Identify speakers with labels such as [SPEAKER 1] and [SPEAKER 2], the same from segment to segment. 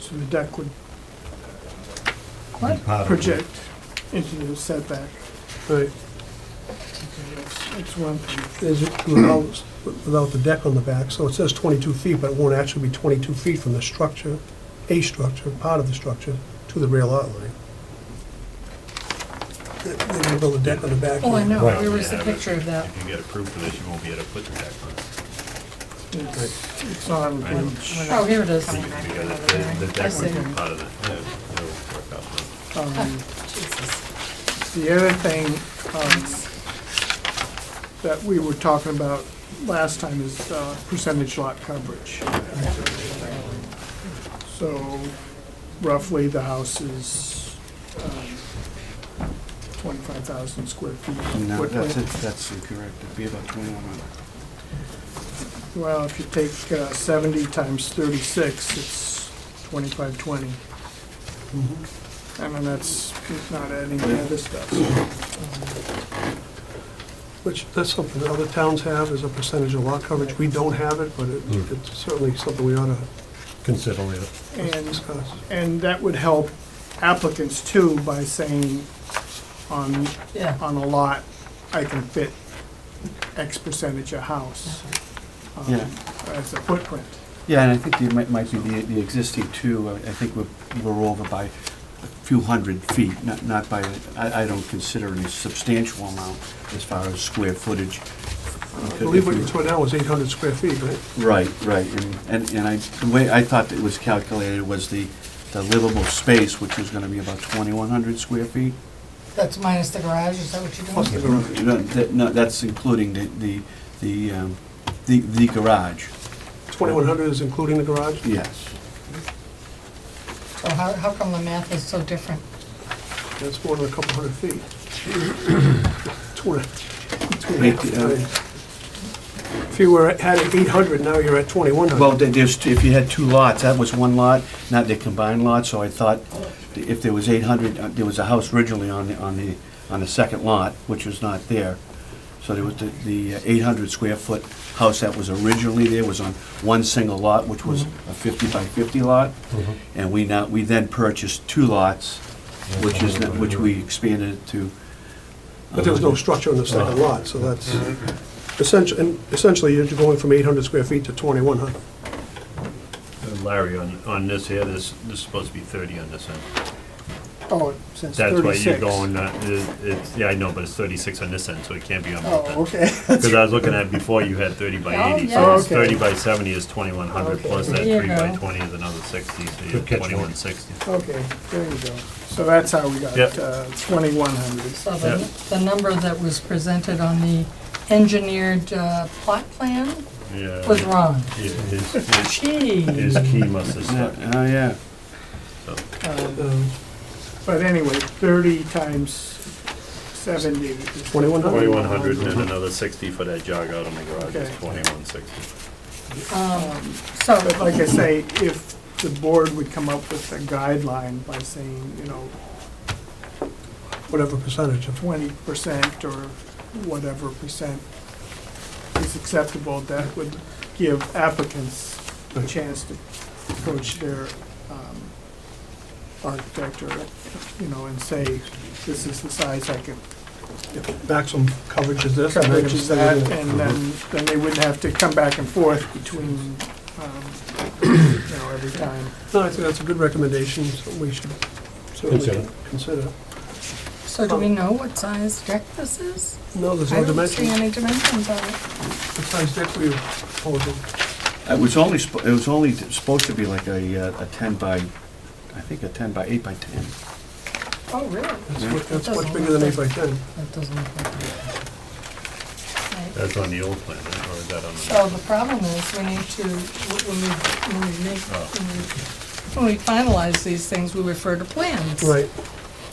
[SPEAKER 1] so the deck would
[SPEAKER 2] Part of it.
[SPEAKER 1] project into the setback.
[SPEAKER 3] Right,
[SPEAKER 1] That's that's one thing.
[SPEAKER 3] is it without, without the deck on the back, so it says twenty-two feet, but it won't actually be twenty-two feet from the structure, a structure, part of the structure, to the rear lot line. They- They're gonna build a deck on the back.
[SPEAKER 4] Oh, I know,
[SPEAKER 2] Right.
[SPEAKER 4] there was a
[SPEAKER 5] Yeah, but
[SPEAKER 4] picture of that.
[SPEAKER 5] If you get approved for this, you won't be able to put the deck on.
[SPEAKER 1] It's it's on
[SPEAKER 5] I know.
[SPEAKER 1] page,
[SPEAKER 4] Oh, here it is.
[SPEAKER 5] Because the- the deck would
[SPEAKER 4] see.
[SPEAKER 5] be part of the, yeah, it'll work out. fine.
[SPEAKER 1] um,
[SPEAKER 4] Jesus.
[SPEAKER 1] The other thing um, that we were talking about last time is uh, percentage lot coverage. So roughly, the house is um, 25,000 square feet.
[SPEAKER 6] No, that's, it.
[SPEAKER 1] footprint.
[SPEAKER 6] that's incorrect, it'd be about twenty-one hundred.
[SPEAKER 1] Well, if you take uh, 70 times 36, it's 2520.
[SPEAKER 5] Mm-hmm.
[SPEAKER 1] I mean, that's not adding any other stuff.
[SPEAKER 3] Which, that's something that other towns have, is a percentage of lot coverage, we don't have it, but it-
[SPEAKER 2] Hmm.
[SPEAKER 3] it's certainly something we ought to
[SPEAKER 2] Consider it.
[SPEAKER 1] And
[SPEAKER 3] discuss.
[SPEAKER 1] And that would help applicants too by saying on,
[SPEAKER 4] Yeah.
[SPEAKER 1] on a lot, I can fit X percentage of house um,
[SPEAKER 6] Yeah.
[SPEAKER 1] as a footprint.
[SPEAKER 6] Yeah, and I think it might, might be the, the existing two, I I think we're, we're over by a few hundred feet, not, not by, I, I don't consider any substantial amount as far as square footage.
[SPEAKER 3] I believe what it's right now is eight hundred square feet, right?
[SPEAKER 6] Right, right, and- and, and I, the way I thought it was calculated was the, the livable space, which was gonna be about twenty-one hundred square feet.
[SPEAKER 4] That's minus the garage, is that what you're doing?
[SPEAKER 3] Plus the garage.
[SPEAKER 6] You know, that, no, that's including the, the, the, um, the, the garage,
[SPEAKER 3] Twenty-one hundred is including the garage?
[SPEAKER 6] yes.
[SPEAKER 4] So how, how come the math is so different?
[SPEAKER 3] That's more than a couple hundred feet. Two and a- two and a half,
[SPEAKER 6] Eight, uh,
[SPEAKER 3] If you were, at- had eight hundred, now you're at twenty-one
[SPEAKER 6] Well,
[SPEAKER 3] hundred.
[SPEAKER 6] there- there's, if you had two lots, that was one lot, not the combined lot, so I thought if there was eight hundred, uh, there was a house originally on the, on the, on the second lot, which was not there. So there was the, the uh, eight hundred square foot house that was originally there was on one single lot, which was a fifty by fifty lot. And we now, we then purchased two lots, which is, not- which we expanded to.
[SPEAKER 3] But there was no structure on the second
[SPEAKER 6] Oh.
[SPEAKER 3] lot, so that's, essentially, and essentially, you're going from eight hundred square feet to twenty-one hundred.
[SPEAKER 5] And Uh, Larry, on, on this here, this, this is supposed to be thirty on this end.
[SPEAKER 1] Oh, it says
[SPEAKER 5] That's why
[SPEAKER 1] 36.
[SPEAKER 5] you're going, uh, it- it's, yeah, I know, but it's thirty-six on this end, so it can't be on both
[SPEAKER 1] Oh,
[SPEAKER 5] ends.
[SPEAKER 1] okay.
[SPEAKER 5] Because I was looking at before, you had thirty
[SPEAKER 4] Oh,
[SPEAKER 5] by eighty,
[SPEAKER 4] yeah.
[SPEAKER 5] so it's
[SPEAKER 1] Okay.
[SPEAKER 5] thirty by seventy is twenty-one hundred, plus that
[SPEAKER 4] There you
[SPEAKER 5] three by
[SPEAKER 4] go.
[SPEAKER 5] twenty is another sixty, so you
[SPEAKER 2] Good
[SPEAKER 5] have
[SPEAKER 2] catch,
[SPEAKER 5] twenty-one
[SPEAKER 2] Mike.
[SPEAKER 5] sixty.
[SPEAKER 1] Okay, there you go. So that's how we got
[SPEAKER 5] Yep.
[SPEAKER 1] uh, 2100.
[SPEAKER 4] So the,
[SPEAKER 5] Yeah.
[SPEAKER 4] the number that was presented on the engineered uh, plot plan
[SPEAKER 5] Yeah.
[SPEAKER 4] was wrong.
[SPEAKER 5] Yeah, His, his-
[SPEAKER 4] Gee.
[SPEAKER 5] his key must have stuck.
[SPEAKER 6] Yeah, Oh, yeah.
[SPEAKER 3] Um,
[SPEAKER 1] But anyway, 30 times 70 is
[SPEAKER 3] 2100.
[SPEAKER 5] Twenty-one hundred and then another sixty for that jog out on the garage
[SPEAKER 1] Okay.
[SPEAKER 5] is twenty-one sixty.
[SPEAKER 4] Um,
[SPEAKER 1] But
[SPEAKER 4] So,
[SPEAKER 1] like I say, if the board would come up with a guideline by saying, you know,
[SPEAKER 3] Whatever percentage of,
[SPEAKER 1] twenty percent or whatever percent is acceptable, that would give applicants a chance to approach their um, architect or, you know, and say, this is the size I can
[SPEAKER 3] maximum coverage is this.
[SPEAKER 1] coverage
[SPEAKER 3] maximum
[SPEAKER 1] is that,
[SPEAKER 3] is
[SPEAKER 1] and then, then they wouldn't have to come back and forth between, um, you know, every time.
[SPEAKER 3] No, I think that's a good recommendation, so we should certainly
[SPEAKER 2] Consider.
[SPEAKER 3] consider.
[SPEAKER 4] so do we know what size deck this is?
[SPEAKER 3] No, there's
[SPEAKER 4] I
[SPEAKER 3] no
[SPEAKER 4] don't see
[SPEAKER 3] dimension.
[SPEAKER 4] any dimensions on it.
[SPEAKER 3] Besides that, we proposing.
[SPEAKER 6] It was only, sp- it was only supposed to be like a, uh, a ten by, I think a ten by eight by ten.
[SPEAKER 4] Oh, really?
[SPEAKER 3] That's
[SPEAKER 6] Yeah.
[SPEAKER 3] what- That's
[SPEAKER 4] Doesn't
[SPEAKER 3] much bigger than eight
[SPEAKER 4] look
[SPEAKER 3] by ten.
[SPEAKER 4] That doesn't look like it. Right.
[SPEAKER 5] That's on the old plan, right? or is that on
[SPEAKER 4] So
[SPEAKER 5] the?
[SPEAKER 4] the problem is, we need to, when we, when we make,
[SPEAKER 5] Oh.
[SPEAKER 4] when we- when we finalize these things, we refer to plans.
[SPEAKER 3] Right.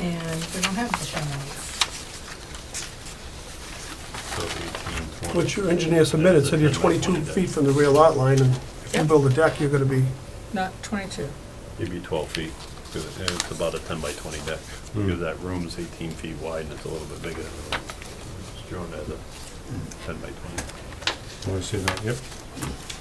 [SPEAKER 4] And we don't have the plans.
[SPEAKER 5] so 18, 20.
[SPEAKER 3] What your engineer submitted said you're 22 feet from the rear lot line, and if you build a deck, you're gonna be,
[SPEAKER 4] Not twenty-two.
[SPEAKER 5] It'd be twelve feet, 'cause it- it's about a ten by twenty deck. Because that room's eighteen feet wide and it's a little bit bigger than the room. It's drawn as a ten by twenty.
[SPEAKER 2] Want to see that? Yep.